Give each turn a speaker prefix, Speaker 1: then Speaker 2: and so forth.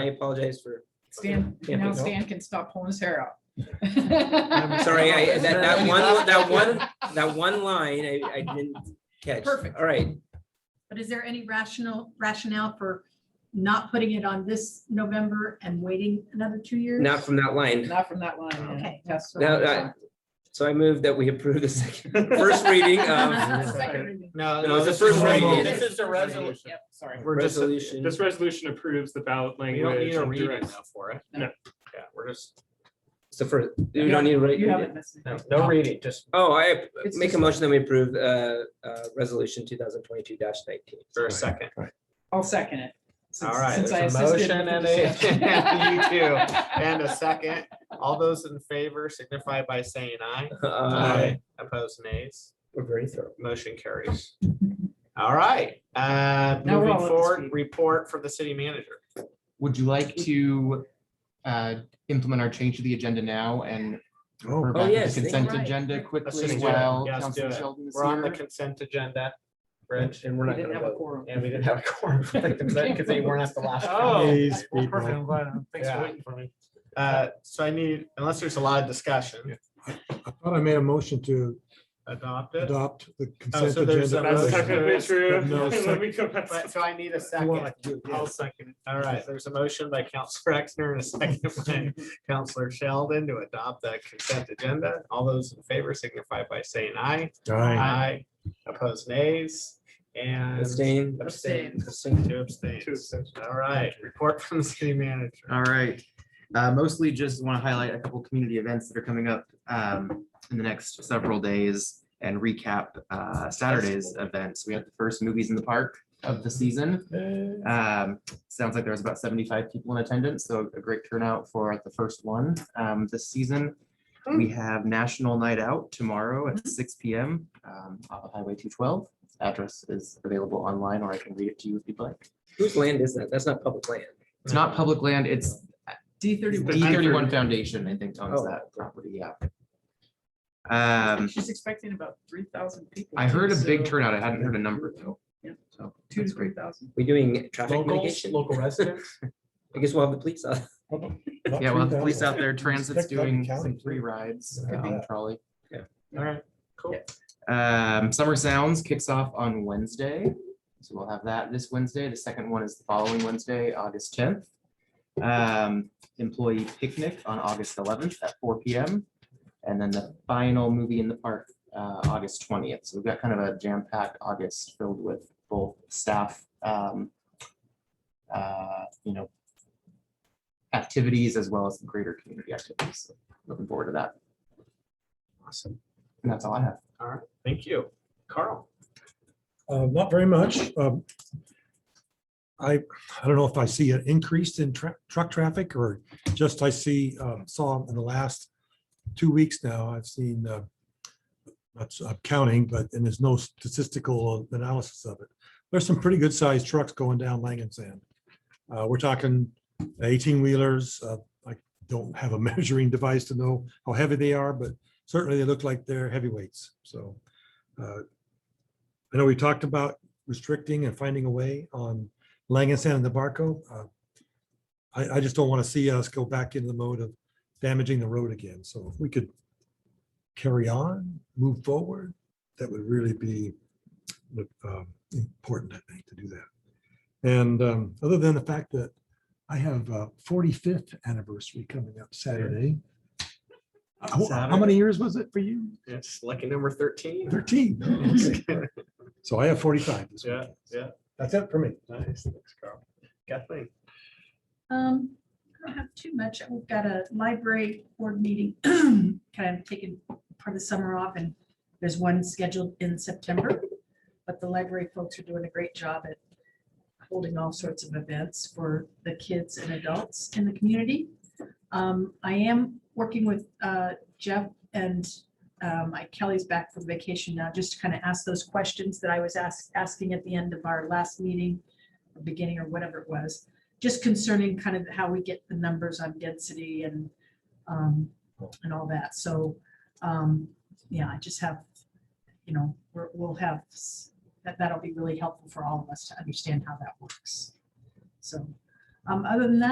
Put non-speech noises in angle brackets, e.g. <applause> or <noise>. Speaker 1: I apologize for,
Speaker 2: Stan,
Speaker 1: Yeah,
Speaker 2: now
Speaker 1: no.
Speaker 2: Stan can stop pulling his hair out.
Speaker 1: I'm sorry, I, that, that one, that one, that one line, I, I didn't catch.
Speaker 2: Perfect.
Speaker 1: All right,
Speaker 3: But is there any rational rationale for not putting it on this November and waiting another two years?
Speaker 1: not from that line.
Speaker 2: Not from that line. yeah.
Speaker 3: Okay.
Speaker 2: That's the
Speaker 1: Now,
Speaker 2: one.
Speaker 1: I- so I move that we approve the second, <laughs> first reading
Speaker 2: <laughs>
Speaker 1: of
Speaker 3: Second reading.
Speaker 4: No,
Speaker 1: No,
Speaker 4: no,
Speaker 1: it's the
Speaker 4: this
Speaker 1: first
Speaker 4: is
Speaker 1: reading.
Speaker 4: reading.
Speaker 1: This
Speaker 4: This is a resolution.
Speaker 2: Yep, sorry.
Speaker 4: We're just,
Speaker 1: resolution.
Speaker 5: This resolution approves the ballot
Speaker 4: we don't
Speaker 5: language.
Speaker 4: need a
Speaker 5: and
Speaker 4: reading
Speaker 5: directs-
Speaker 4: now for it.
Speaker 5: No.
Speaker 4: Yeah, we're just,
Speaker 1: It's the first, you don't need to
Speaker 2: You
Speaker 1: write.
Speaker 2: haven't missed it.
Speaker 4: no, no reading, just
Speaker 1: Oh, I
Speaker 2: It's
Speaker 1: make a
Speaker 2: just-
Speaker 1: motion that we approve, uh, uh, resolution two thousand twenty-two nineteen.
Speaker 4: for a second.
Speaker 2: I'll second it. since-
Speaker 4: All right,
Speaker 2: since
Speaker 4: there's
Speaker 2: I
Speaker 4: a
Speaker 2: assisted
Speaker 4: motion
Speaker 2: with the
Speaker 4: and a-
Speaker 2: discussion.
Speaker 4: <laughs> and you
Speaker 2: <laughs>
Speaker 4: too. <laughs> And a second, all those in favor signify by saying aye. Opposed nays,
Speaker 1: Uh, We're very thorough.
Speaker 4: motion carries. All right, uh,
Speaker 2: Now we're
Speaker 4: moving
Speaker 2: all up to
Speaker 4: forward,
Speaker 2: speed.
Speaker 4: report from the city manager.
Speaker 6: Would you like to uh, implement our change to the agenda now and
Speaker 7: Oh.
Speaker 6: refer back to
Speaker 1: Oh, yes,
Speaker 6: the
Speaker 1: thank you.
Speaker 6: consent
Speaker 3: Right.
Speaker 6: agenda
Speaker 4: Let's
Speaker 6: quickly
Speaker 4: just do it.
Speaker 6: while
Speaker 4: Yes, do
Speaker 6: Councilman
Speaker 4: it.
Speaker 6: Sheldon is
Speaker 4: We're on the
Speaker 6: here?
Speaker 4: consent agenda,
Speaker 1: And
Speaker 4: Rich,
Speaker 1: and we're
Speaker 2: We
Speaker 1: not
Speaker 2: didn't
Speaker 1: gonna
Speaker 2: have a
Speaker 1: vote.
Speaker 2: quorum.
Speaker 4: and we didn't have a quorum for the consent because they weren't at the last.
Speaker 5: Oh,
Speaker 4: meeting.
Speaker 5: well, perfect. I'm glad. Thanks
Speaker 4: Yeah.
Speaker 5: for waiting for me.
Speaker 4: Uh, So I need, unless there's a lot of discussion,
Speaker 7: I thought I made a motion to
Speaker 4: adopt it.
Speaker 7: adopt the
Speaker 4: Oh,
Speaker 7: consent
Speaker 4: so there's
Speaker 7: agenda.
Speaker 4: a
Speaker 5: That's
Speaker 4: motion.
Speaker 5: technically true.
Speaker 7: No,
Speaker 5: <laughs> Let
Speaker 7: second.
Speaker 5: me go back.
Speaker 4: But- So I need a second.
Speaker 5: I'll
Speaker 7: Second.
Speaker 5: second
Speaker 4: All right, there's a motion by Counselor Exner and a second <laughs> by Counselor Sheldon to adopt the consent agenda. All those in favor signify by saying aye.
Speaker 7: Aye.
Speaker 4: Aye. Opposed nays and.
Speaker 1: Abstain.
Speaker 4: Abstain.
Speaker 1: Abstain.
Speaker 4: Two
Speaker 5: Two
Speaker 4: abstains.
Speaker 5: abstentions.
Speaker 4: All right, report from the city manager.
Speaker 6: All right. Uh, Mostly just want to highlight a couple community events that are coming up um, in the next several days and recap uh, Saturday's events. We have the first Movies in the Park of the season. Um, Sounds like there was about 75 people in attendance, so a great turnout for the first one um, this season. We have National Night Out tomorrow at six P M. um, off of Highway two twelve. Address is available online, or I can read it to you if you'd like.
Speaker 1: Whose land is that? That's not public land.
Speaker 6: It's not public land, it's D thirty-one. D E thirty-one Foundation, I think, owns
Speaker 1: Oh.
Speaker 6: that property, yeah. Um,
Speaker 2: She's expecting about three thousand people.
Speaker 6: I heard a big
Speaker 2: so
Speaker 6: turnout, I hadn't heard a number though.
Speaker 2: Yeah.
Speaker 6: So,
Speaker 2: Two to
Speaker 6: that's
Speaker 2: three
Speaker 6: great.
Speaker 2: thousand.
Speaker 1: We're doing traffic
Speaker 4: Locals,
Speaker 1: mitigation.
Speaker 4: local residents.
Speaker 1: I guess we'll have the police. on.
Speaker 6: Yeah, well, the police out there, transit's
Speaker 7: Expect that in
Speaker 6: doing
Speaker 7: county,
Speaker 6: some
Speaker 7: too.
Speaker 6: free rides
Speaker 7: Yeah.
Speaker 6: on trolley.
Speaker 4: All right, cool.
Speaker 6: Um, Summer Sounds kicks off on Wednesday. So we'll have that this Wednesday. The second one is the following Wednesday, August tenth. Um, employee picnic on August eleventh at four P M. And then the final movie in the park, uh, August twentieth. So we've got kind of a jam-packed August filled with both staff, um, uh, you know, activities as well as greater community activities. So Looking forward to that.
Speaker 4: Awesome.
Speaker 6: And that's all I have.
Speaker 4: All right, thank you. Carl.
Speaker 7: Uh, Not very much. Um, I, I don't know if I see an increase in tra- truck traffic or just I see, um, saw in the last two weeks now, I've seen, uh, that's uh, counting, but, and there's no statistical analysis of it. There's some pretty good sized trucks going down Langen Sand. Uh, We're talking eighteen wheelers. uh, I don't have a <laughs> measuring device to know how heavy they are, but certainly they look like they're heavyweights. So uh, I know we talked about restricting and finding a way on Langenstein and the Barco. Uh, I, I just don't want to see us go back into the mode of damaging the road again. So if we could carry on, move forward, that would really be um, important, I think, to do that. And um, other than the fact that I have a 45th anniversary coming up Saturday. How how many years was it for you?
Speaker 4: It's lucky number thirteen. <laughs>
Speaker 7: 13. So I have 45 this
Speaker 4: Yeah,
Speaker 7: weekend.
Speaker 4: yeah.
Speaker 7: That's it for me.
Speaker 4: Nice, thanks, Carl. Kathleen.
Speaker 3: Um, I don't have too much. We've got a library board meeting, <clears throat> kind of taking part of the summer off and there's one scheduled in September. But the library folks are doing a great job at holding all sorts of events for the kids and adults in the community. Um, I am working with uh, Jeff and um, I- Kelly's back from vacation now, just to kind of ask those questions that I was asked, asking at the end of our last meeting, or beginning or whatever it was just concerning kind of how we get the numbers on density and, um, and all that. So, um, yeah, I just have, you know, we're, we'll have, s- that, that'll be really helpful for all of us to understand how that works. So, um, other than that,